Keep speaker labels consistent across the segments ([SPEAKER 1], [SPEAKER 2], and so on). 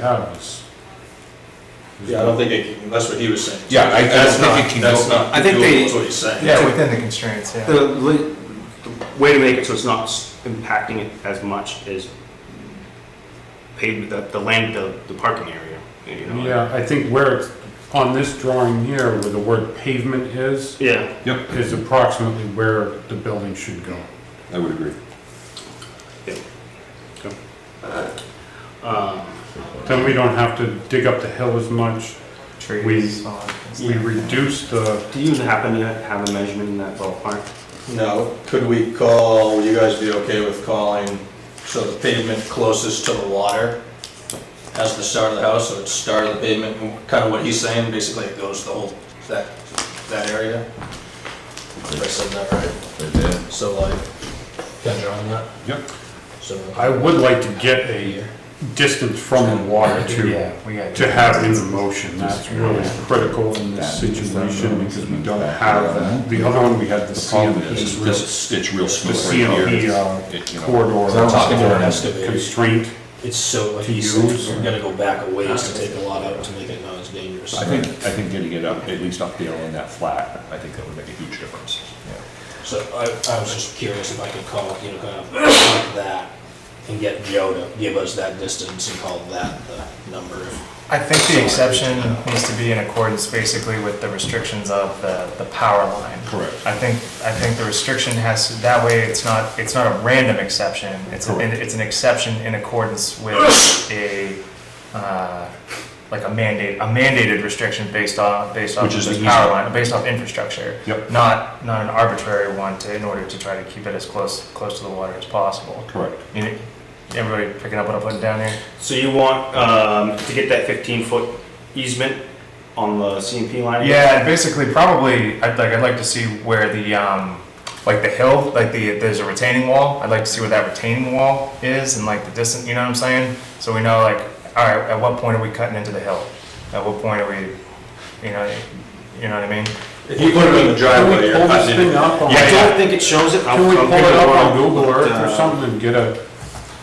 [SPEAKER 1] have is. is-
[SPEAKER 2] Yeah, I don't think it, can- that's what he was saying.
[SPEAKER 1] Yeah, I- I don't
[SPEAKER 2] That's
[SPEAKER 1] think
[SPEAKER 2] not-
[SPEAKER 1] it can
[SPEAKER 2] That's
[SPEAKER 1] go-
[SPEAKER 2] not,
[SPEAKER 3] I think they-
[SPEAKER 2] doable is what he's saying.
[SPEAKER 1] Yeah, we-
[SPEAKER 4] within the constraints, yeah.
[SPEAKER 3] The, li- the way to make it so it's not s- impacting it as much is paved the, the land, the, the parking area, you know?
[SPEAKER 1] Yeah, I think where it's, on this drawing here, where the word pavement is,
[SPEAKER 3] Yeah,
[SPEAKER 1] is approximately where the building should go.
[SPEAKER 5] I would agree.
[SPEAKER 3] um,
[SPEAKER 1] Then we don't have to dig up the hill as much.
[SPEAKER 4] Trees, all that kind of
[SPEAKER 1] We
[SPEAKER 4] stuff.
[SPEAKER 1] reduce the,
[SPEAKER 3] do you happen to have a measurement in that ballpark?
[SPEAKER 2] Now, could we call, would you guys be okay with calling, so the pavement closest to the water has the start of the house, so it's start of the pavement, kind of what he's saying, basically it goes the whole, that, that area? If I said that right,
[SPEAKER 5] Right there.
[SPEAKER 2] so like, can you on that?
[SPEAKER 1] Yep.
[SPEAKER 2] So,
[SPEAKER 1] I would like to get a distance from the water to,
[SPEAKER 4] Yeah, we got.
[SPEAKER 1] to have in the motion. That's really critical in this situation because we don't have, the other one, we had the
[SPEAKER 5] The problem is,
[SPEAKER 1] CMP,
[SPEAKER 5] is
[SPEAKER 1] real-
[SPEAKER 5] this- it's real
[SPEAKER 1] the
[SPEAKER 5] smooth right
[SPEAKER 1] CMP
[SPEAKER 5] here.
[SPEAKER 1] uh,
[SPEAKER 5] It, you know,
[SPEAKER 1] corridor.
[SPEAKER 2] talking to an
[SPEAKER 1] Constraint.
[SPEAKER 2] it's so, like
[SPEAKER 1] To you said, use. we're
[SPEAKER 2] gonna go back a ways to take a lot out to make it not as dangerous.
[SPEAKER 5] I think, I think getting it up, at least up there on that flat, I think that would make a huge difference.
[SPEAKER 6] So I, I was just curious if I could call, you know, kind of like that and get Joe to give us that distance and call that the number.
[SPEAKER 4] I think the exception needs to be in accordance basically with the restrictions of the, the power line.
[SPEAKER 5] Correct.
[SPEAKER 4] I think, I think the restriction has, to that way it's not, it's not a random exception. It's, an-
[SPEAKER 5] Correct.
[SPEAKER 4] it's an exception in accordance with a, uh, like a mandate, a mandated restriction based off, based off
[SPEAKER 5] Which
[SPEAKER 4] of
[SPEAKER 5] is
[SPEAKER 4] this
[SPEAKER 5] the
[SPEAKER 4] power
[SPEAKER 5] easement.
[SPEAKER 4] line, based off infrastructure.
[SPEAKER 5] Yep.
[SPEAKER 4] Not, not an arbitrary one to, in order to try to keep it as close, close to the water as possible.
[SPEAKER 5] Correct.
[SPEAKER 4] You- Everybody picking up what I'm putting down here?
[SPEAKER 3] So you want, um, to get that fifteen foot easement on the CMP line?
[SPEAKER 4] Yeah, and basically, probably, I'd like, I'd like to see where the, um, like the hill, like the, there's a retaining wall. I'd like to see where that retaining wall is and like the distance, you know what I'm saying? So we know like, all right, at what point are we cutting into the hill? At what point are we, you know, you know what I mean?
[SPEAKER 2] If you put it in the driveway, you're
[SPEAKER 1] Can we pull this
[SPEAKER 2] cutting
[SPEAKER 1] thing
[SPEAKER 2] it.
[SPEAKER 1] up on-
[SPEAKER 3] I don't think it shows it.
[SPEAKER 1] Can we pull it up on Google Earth
[SPEAKER 3] uh,
[SPEAKER 1] or something and get a,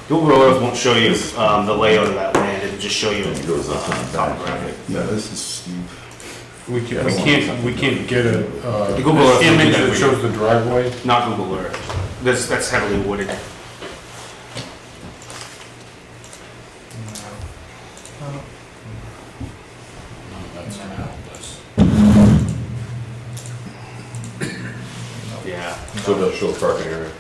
[SPEAKER 3] Google Earth won't show you, um, the layout of that land, it'll just show you. uh, topographic.
[SPEAKER 5] Yeah, this is steep.
[SPEAKER 1] we can't, we can't, we can't get a,
[SPEAKER 3] The Google
[SPEAKER 1] uh,
[SPEAKER 3] Earth
[SPEAKER 1] image that
[SPEAKER 3] will do that for you.
[SPEAKER 1] shows the driveway?
[SPEAKER 3] Not Google Earth, that's, that's heavily wooded. Yeah.
[SPEAKER 5] So that show parking area.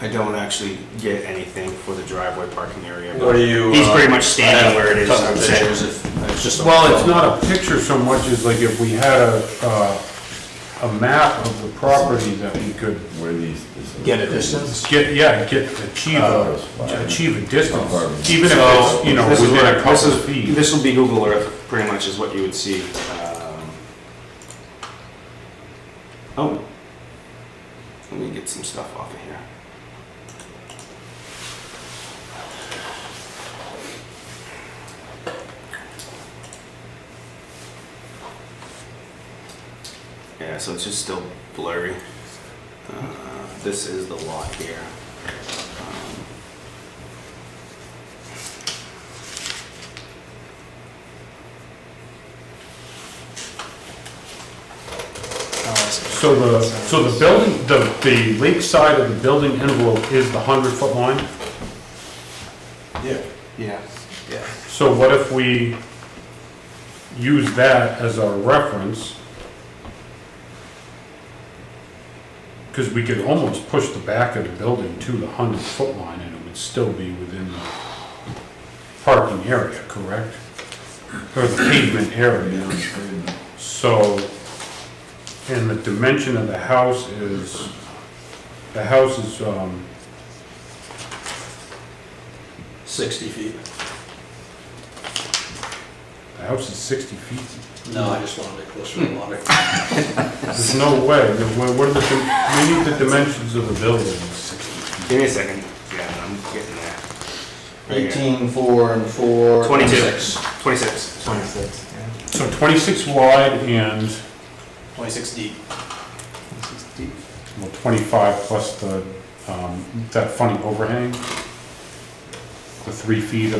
[SPEAKER 3] I don't actually get anything for the driveway parking area. but
[SPEAKER 2] What do you?
[SPEAKER 3] He's
[SPEAKER 2] uh,
[SPEAKER 3] pretty much standing where it is.
[SPEAKER 2] Couple
[SPEAKER 3] I'm saying.
[SPEAKER 2] pictures if- it's just a-
[SPEAKER 1] Well, it's not a picture so much as like if we had a, uh, a map of the property that we could
[SPEAKER 5] Where these. this is-
[SPEAKER 2] Get a distance?
[SPEAKER 1] get, yeah, get, achieve a, achieve a distance. Even if
[SPEAKER 3] So,
[SPEAKER 1] it's, you know,
[SPEAKER 3] this is
[SPEAKER 1] within
[SPEAKER 3] where-
[SPEAKER 1] a couple
[SPEAKER 3] this
[SPEAKER 1] of
[SPEAKER 3] is-
[SPEAKER 1] feet.
[SPEAKER 3] This will be Google Earth, pretty much is what you would see. um, Oh. Let me get some stuff off of here. Yeah, so it's just still blurry. Uh, This is the lot here. Um,
[SPEAKER 1] So the, so the building, the, the lakeside of the building envelope is the hundred foot line?
[SPEAKER 2] Yeah.
[SPEAKER 3] Yeah.
[SPEAKER 2] Yeah.
[SPEAKER 1] So what if we use that as our reference? Because we could almost push the back of the building to the hundred foot line and it would still be within the parking area, correct? Or the pavement area. So, and the dimension of the house is, the house is, um,
[SPEAKER 2] 60 feet.
[SPEAKER 1] the house is sixty feet.
[SPEAKER 2] No, I just wanted it closer to the water.
[SPEAKER 1] There's no way, The- what what are the, dim- we need the dimensions of the buildings.
[SPEAKER 3] Give me a second. Yeah, I'm getting there. Right here.
[SPEAKER 2] 18, 4, and 4.
[SPEAKER 3] 22.
[SPEAKER 2] six.
[SPEAKER 3] 26.
[SPEAKER 4] Twenty-six, yeah.
[SPEAKER 1] So twenty-six wide and,
[SPEAKER 2] 26 deep.
[SPEAKER 1] well, twenty-five plus the, um, that funny overhang, the three feet